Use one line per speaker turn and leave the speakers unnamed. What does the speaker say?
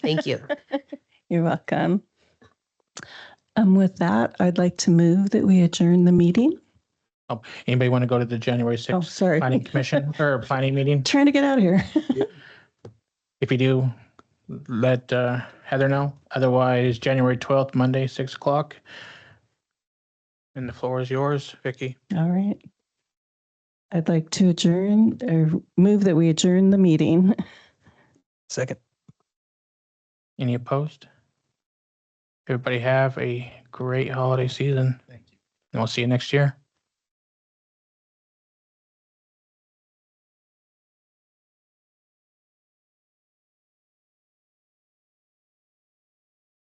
Thank you.
You're welcome. Um, with that, I'd like to move that we adjourn the meeting.
Anybody want to go to the January
Oh,
6th
sorry.
planning commission or planning meeting?
Trying to get out of here.
If you do, let uh, Heather know. Otherwise, January 12th, Monday, 6 o'clock. And the floor is yours, Vicky.
All right. I'd like to adjourn or move that we adjourn the meeting.
Second.
Any opposed? Everybody have a great holiday season.
Thank you.
And we'll see you next year.